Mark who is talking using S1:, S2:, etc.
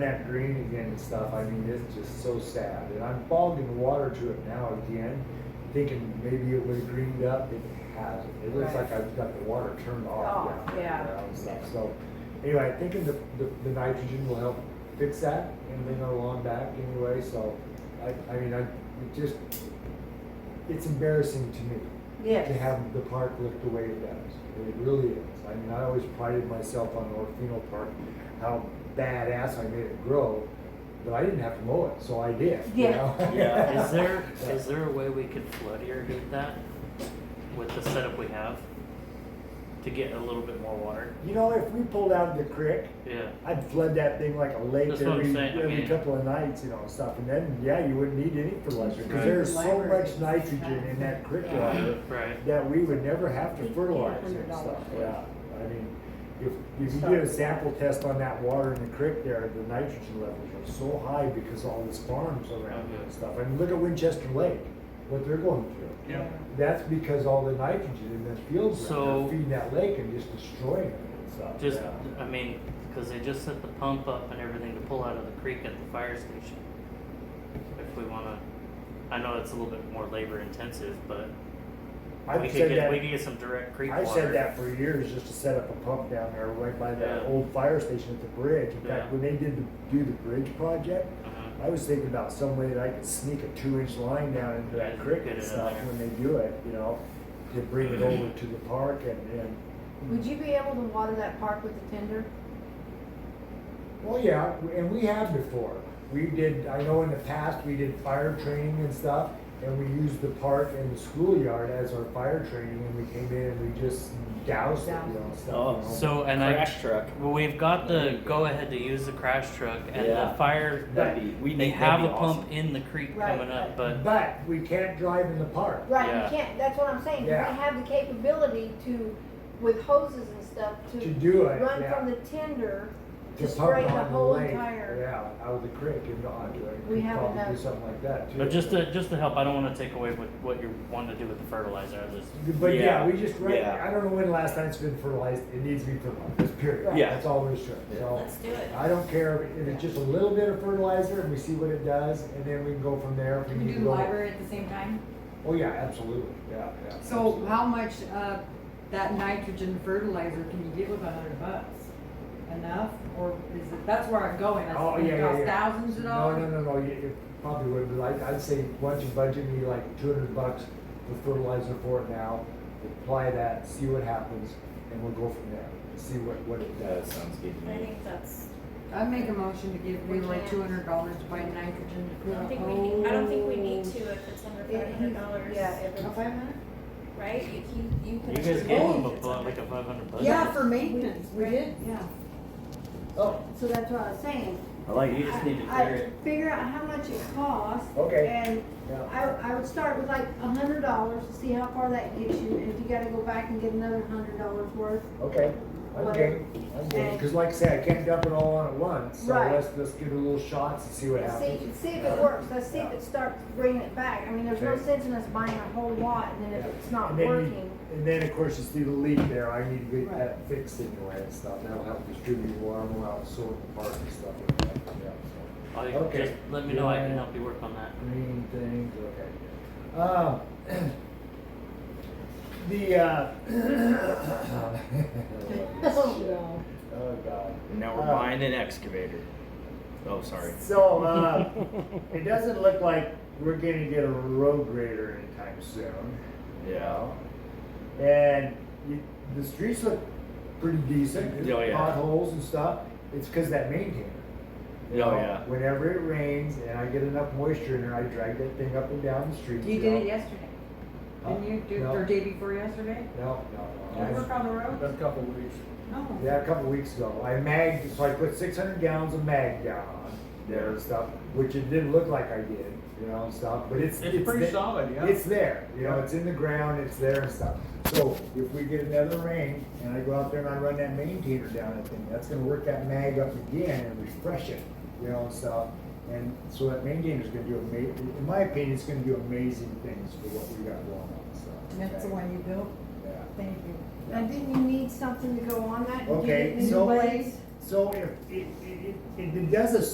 S1: that green again and stuff, I mean, it's just so sad. And I'm bogging water to it now again, thinking maybe it would have greened up. It hasn't. It looks like
S2: Right.
S1: I've got the water turned off.
S2: Off,
S1: down there
S2: yeah.
S1: now and stuff. So anyway, I think the, the, the nitrogen will help fix that and bring it along back anyway. So I, I mean, I, it just, it's embarrassing to me to
S2: Yes.
S1: have the park look the way it does. It really is. I mean, I always prided myself on Orfino Park, how badass I made it grow, but I didn't have to mow it, so I did. you
S2: Yeah.
S1: know?
S3: Yeah, is there, is there a way we could flood irrigate that with the setup we have? To get a little bit more water?
S1: You know, if we pulled out of the creek,
S3: Yeah,
S1: I'd flood that thing like a lake
S3: That's what I'm
S1: every,
S3: saying, I
S1: every
S3: mean-
S1: couple of nights, you know, and stuff. And then, yeah, you wouldn't need any fertilizer because
S3: Right.
S1: there's so
S2: Library.
S1: much nitrogen in that creek
S2: Yeah.
S1: water
S3: right.
S1: that we would never have to fertilize
S2: Hundred
S1: and stuff,
S2: dollars.
S1: yeah. I mean, if, if you did a sample test on that water in the creek there, the nitrogen levels are so high because all these farms around it and stuff. I mean, look at Winchester Lake, what they're going through.
S3: Yeah.
S1: That's because all the nitrogen in the fields around
S3: So-
S1: there feeding that lake and just destroying it and stuff.
S3: Just,
S1: yeah.
S3: I mean, cause they just set the pump up and everything to pull out of the creek at the fire station. If we wanna, I know it's a little bit more labor intensive, but we
S1: I've
S3: could
S1: said
S3: get, we
S1: that,
S3: could get some direct creek water.
S1: I said that for years, just to set up a pump down there right by that
S3: Yeah.
S1: old fire station at the bridge. In fact,
S3: Yeah.
S1: when they did the, do the bridge project,
S3: Uh-huh.
S1: I was thinking about some way that I could sneak a two inch line down into that
S3: Yeah,
S1: creek
S3: get
S1: and
S3: it in
S1: stuff
S3: there.
S1: when they do it, you know, to bring it over to the park and, and,
S2: Would you be able to water that park with the tender?
S1: well, yeah, and we have before. We did, I know in the past, we did fire training and stuff, and we used the park and the schoolyard as our fire training, and we came in and we just doused it, you know, and stuff. you know.
S3: Oh, So, and I,
S4: Crash truck.
S3: well, we've got the go ahead to use the crash truck and the
S4: Yeah.
S3: fire,
S4: That'd be, we
S3: they
S4: need,
S3: have
S4: that'd
S3: a
S4: be awesome.
S3: pump in the creek
S2: Right,
S3: coming up,
S2: right.
S3: but
S1: But we can't drive in the park.
S2: Right,
S3: Yeah.
S2: you can't, that's what I'm saying, you
S1: Yeah.
S2: don't have the capability to, with hoses and stuff, to.
S1: To do it,
S2: Run
S1: yeah.
S2: from the tender
S1: To
S2: to
S1: pump
S2: spray the
S1: on
S2: whole
S1: lake,
S2: entire.
S1: Yeah, out of the creek and onto it.
S2: We
S1: Could
S2: have
S1: probably Do
S2: enough.
S1: something like that too.
S3: But just to just to help, I don't want to take away with what you want to do with the fertilizer. I just
S1: But yeah,
S4: Yeah,
S1: we just, right,
S4: yeah.
S1: I don't know when the last time it's been fertilized, it needs to be fertilized, period.
S4: Right. Yeah.
S1: That's all there's to it,
S4: Yeah.
S1: so.
S5: Let's do it.
S1: I don't care if it's just a little bit of fertilizer and we see what it does and then we can go from there. if
S6: Can we
S1: need
S6: do
S1: to
S6: the
S1: go-
S6: library at the same time?
S1: Oh, yeah, absolutely, yeah, yeah.
S6: So
S1: absolutely.
S6: how much of that nitrogen fertilizer can you get with a hundred bucks? Enough, or is it, that's where I'm going, that's
S1: Oh,
S6: gonna
S1: yeah, yeah,
S6: cost
S1: yeah.
S6: thousands of
S1: No, no,
S6: dollars?
S1: no, no, you, you probably would, but I, I'd say, once you budget me like two hundred bucks for fertilizer for it now, apply that, see what happens, and we'll go from there, see what, what it
S4: That
S1: does.
S4: sounds good to
S5: I
S4: me.
S5: think that's,
S6: I make a motion to give
S2: We
S6: Leroy
S2: can't.
S6: two hundred dollars to buy nitrogen.
S5: I don't think we, need- I don't think we need to if it's under five hundred dollars. Oh,
S2: Yeah, if it's-
S5: Right, you, you, you can.
S3: you guys
S5: approve
S3: gave
S5: it
S3: them
S5: if
S3: a
S5: it's
S3: bu-
S5: under-
S3: like a five hundred bucks.
S6: Yeah, for maintenance, we did, yeah.
S1: Oh,
S2: So that's what I was saying.
S4: I like, you just need to
S2: I-
S4: clear it.
S2: I figure out how much it costs.
S1: Okay.
S2: And
S1: yeah,
S2: I, I would start with like a hundred dollars to see how far that gets you, and if you gotta go back and get another hundred dollars worth.
S1: okay, I'm game, I'm game, cause like I said, I can't dump it all on at once, so
S2: Right.
S1: let's, let's give it a little shots and see what
S2: See,
S1: happens.
S2: see if it works, let's see if it starts bringing it back, I mean, there's no
S1: Okay.
S2: sense in us buying a whole lot, and then if it's not
S1: And then you-
S2: working.
S1: And then, of course, you see the leak there, I need to get
S6: Right.
S1: that fixed anyway and stuff, that'll help distribute water out, sort the park and stuff like that, yeah, so.
S3: All you-
S1: Okay.
S3: Just let me know. I
S1: Yeah.
S3: can help you work on that.
S1: green things, okay. Um, the, uh.
S2: Oh,
S1: Oh, God.
S4: Now we're
S1: Uh,
S4: buying an excavator. Oh, sorry.
S1: So, uh, it doesn't look like we're gonna get a road grader anytime soon. you
S4: Yeah.
S1: know? And you- the streets look pretty decent.
S4: Oh, yeah.
S1: Potholes and stuff, it's cause that maintainer.
S4: Oh,
S1: you know?
S4: yeah.
S1: Whenever it rains and I get enough moisture in there, I drag that thing up and down the street.
S6: You did it yesterday, didn't you, Do-
S1: Uh, No. Uh,
S6: or day before yesterday?
S1: No, no,
S6: Did you
S1: no.
S6: work on the road?
S7: Been a couple of weeks.
S6: No.
S1: Yeah, a couple weeks ago. I magged, so I put 600 gallons of mag down on there and stuff, which it didn't look like I did, you know, and stuff. But it's
S7: It's pretty
S1: the-
S7: solid, yeah.
S1: It's there, you know, it's in the ground, it's there and stuff. So if we get another rain and I go out there and I run that maintainer down that thing, that's gonna work that mag up again and refresh it, you know, and stuff. And so that maintainer's gonna do ama- in my opinion, it's gonna do amazing things for what we got going on, so.
S6: That's the
S1: okay?
S6: one you built,
S1: Yeah.
S6: thank you.
S2: Now, didn't you need something to go on that? Did you
S1: Okay,
S2: get new
S1: so-
S2: blades?
S1: So if, it, it, it, it does a